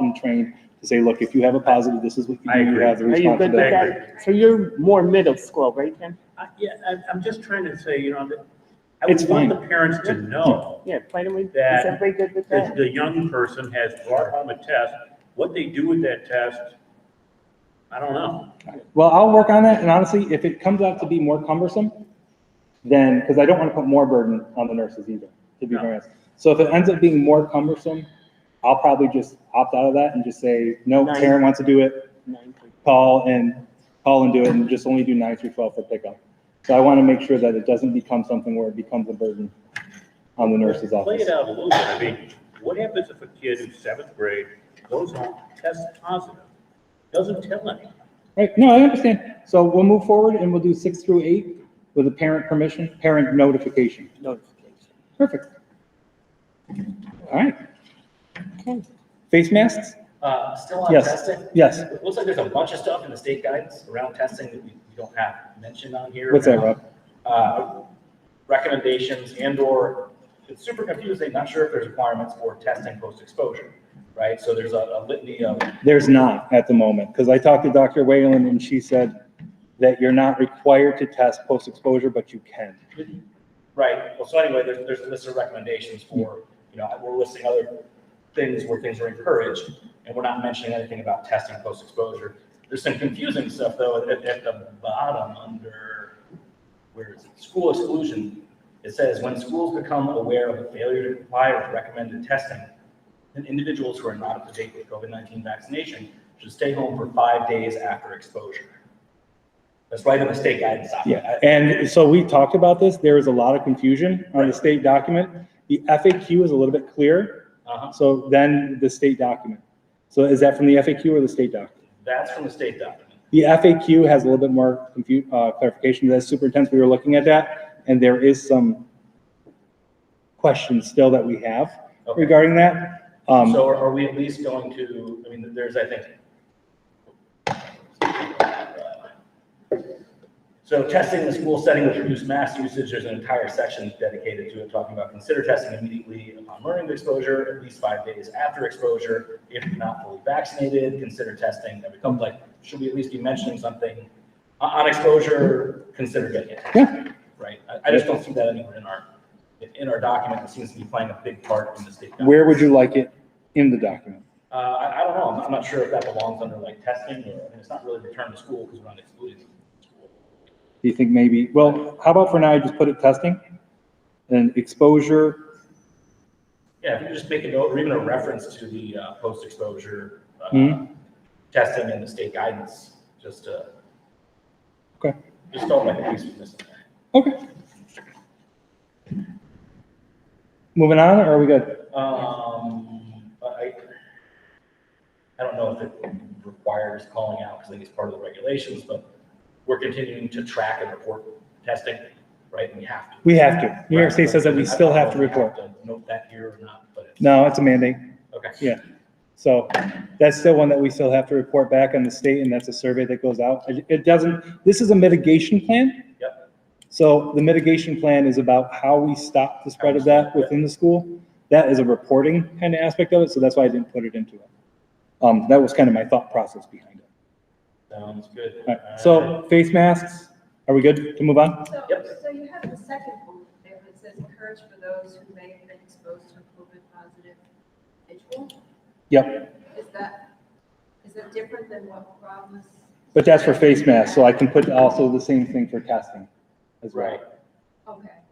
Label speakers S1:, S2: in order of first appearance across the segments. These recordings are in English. S1: and trained to say, look, if you have a positive, this is what you
S2: I
S1: do, you
S2: agree.
S1: have the
S3: Are you good with
S1: responsibility.
S3: that? So you're more middle school, right, Ken?
S2: I- Yeah, I- I'm just trying to say, you know, that I
S1: It's
S2: would want
S1: fine.
S2: the parents to know
S3: Yeah, why don't we, is
S2: That-
S3: everybody good with
S2: that
S3: that?
S2: the young person has brought home a test. What they do with that test, I don't know.
S1: Well, I'll work on that, and honestly, if it comes out to be more cumbersome, then, because I don't want to put more burden on the nurses either, to be
S2: No.
S1: very honest. So if it ends up being more cumbersome, I'll probably just opt out of that and just say, no,
S3: Nice.
S1: Karen wants to do it,
S3: Nine through-
S1: call and, call and do it, and just only do nine through twelve for pickup. So I want to make sure that it doesn't become something where it becomes a burden on the nurse's
S2: Play
S1: office.
S2: it out a little bit. I mean, what happens if a kid in seventh grade goes home, tests positive, doesn't tell anyone?
S1: Right, no, I understand. So we'll move forward and we'll do six through eight with a parent permission, parent notification.
S3: Notification.
S1: Perfect. All right.
S3: Okay.
S1: Face masks?
S4: Uh, still on
S1: Yes.
S4: testing?
S1: Yes.
S4: It looks like there's a bunch of stuff in the state guidance around testing that we we don't have mentioned on here.
S1: What's that, Rob?
S4: Uh, recommendations and or, it's super confusing, not sure if there's requirements for testing post-exposure, right? So there's a a litany of,
S1: There's not at the moment, because I talked to Dr. Whalen and she said that you're not required to test post-exposure, but you can.
S4: right, well, so anyway, there's, there's a list of recommendations for, you know, we're listing other things where things are encouraged, and we're not mentioning anything about testing post-exposure. There's some confusing stuff, though, at, at the bottom under, where is it, school exclusion. It says, when schools become aware of a failure to comply with recommended testing, then individuals who are not up to date with COVID-19 vaccination should stay home for five days after exposure. That's right in the state guidance document.
S1: Yeah, and so we talked about this. There is a lot of confusion on the state document. The FAQ is a little bit clearer,
S4: Uh-huh,
S1: so then the state document. So is that from the FAQ or the state doc?
S4: that's from the state document.
S1: The FAQ has a little bit more confu- uh, clarification. That's super intense. We were looking at that, and there is some questions still that we have
S4: Okay.
S1: regarding that. Um,
S4: So are- are we at least going to, I mean, there's, I think. So testing in the school setting with reduced mass usage, there's an entire section dedicated to it, talking about consider testing immediately upon learning of exposure, at least five days after exposure. If you're not fully vaccinated, consider testing. That becomes like, should we at least be mentioning something on, on exposure, consider getting it?
S1: Yeah.
S4: Right? I, I just don't see that anywhere in our, in our document. It seems to be playing a big part in the state.
S1: where would
S4: guidelines.
S1: you like it in the document?
S4: Uh, I, I don't know, I'm, I'm not sure if that belongs under like testing, or, I mean, it's not really return to school, because we're not excluding them. from school.
S1: Do you think maybe, well, how about for now, I just put it testing and exposure?
S4: Yeah, if you just make a note, or even a reference to the, uh, post-exposure, uh,
S1: Mhm.
S4: testing and the state guidance, just to.
S1: Okay.
S4: Just don't let the piece be missing there.
S1: Okay. Moving on, or are we good?
S4: Um, but I, I don't know if it requires calling out, because I think it's part of the regulations, but we're continuing to track and report testing, right, and we have to.
S1: We have to. New York State says that we
S4: Right,
S1: still
S4: I
S1: have
S4: don't
S1: to
S4: know if we
S1: report.
S4: have to Note that here or not, but it's,
S1: No, it's a mandate.
S4: okay.
S1: Yeah. So that's still one that we still have to report back on the state, and that's a survey that goes out. It- It doesn't, this is a mitigation plan.
S4: Yep.
S1: So the mitigation plan is about how we stop the spread of that within the school. That is a reporting kind of aspect of it, so that's why I didn't put it into it. Um, that was kind of my thought process behind it.
S4: Sounds good. Uh,
S1: All right, so face masks, are we good to move on?
S5: So,
S4: Yep.
S5: so you have the second bullet there that says encourage for those who may have been exposed to a COVID positive individual.
S1: Yep,
S5: Is that, is that different than what Rob was?
S1: but that's for face masks, so I can put also the same thing for testing as well.
S4: Right.
S5: Okay.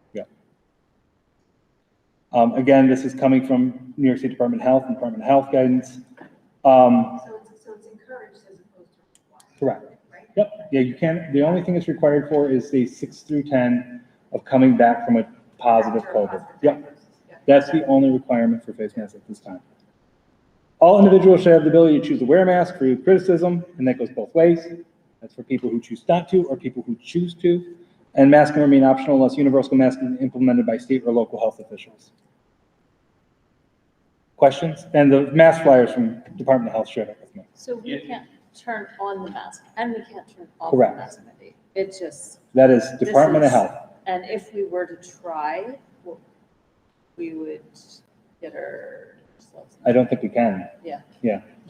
S1: Um, again, this is coming from New York State Department of Health and Department of Health guidance. Um,
S5: So it's, so it's encouraged as opposed to required.
S1: Correct.
S5: Right?
S1: yep, yeah, you can, the only thing it's required for is the six through 10 of coming back from a positive
S5: After a
S1: COVID.
S5: positive
S1: Yep,
S5: diagnosis, yeah.
S1: that's the only requirement for face masks at this time. All individuals should have the ability to choose to wear a mask for criticism, and that goes both ways. That's for people who choose not to or people who choose to. And masks can remain optional unless universal masking is implemented by state or local health officials. Questions? And the mask flyers from Department of Health shared it with me.
S6: So we
S4: Yeah.
S6: can't turn on the mask and we can't turn off the
S1: Correct.
S6: mask mandate. It just,
S1: That is Department of
S6: This is-
S1: Health.
S6: and if we were to try, we would get our close.
S1: I don't think we can.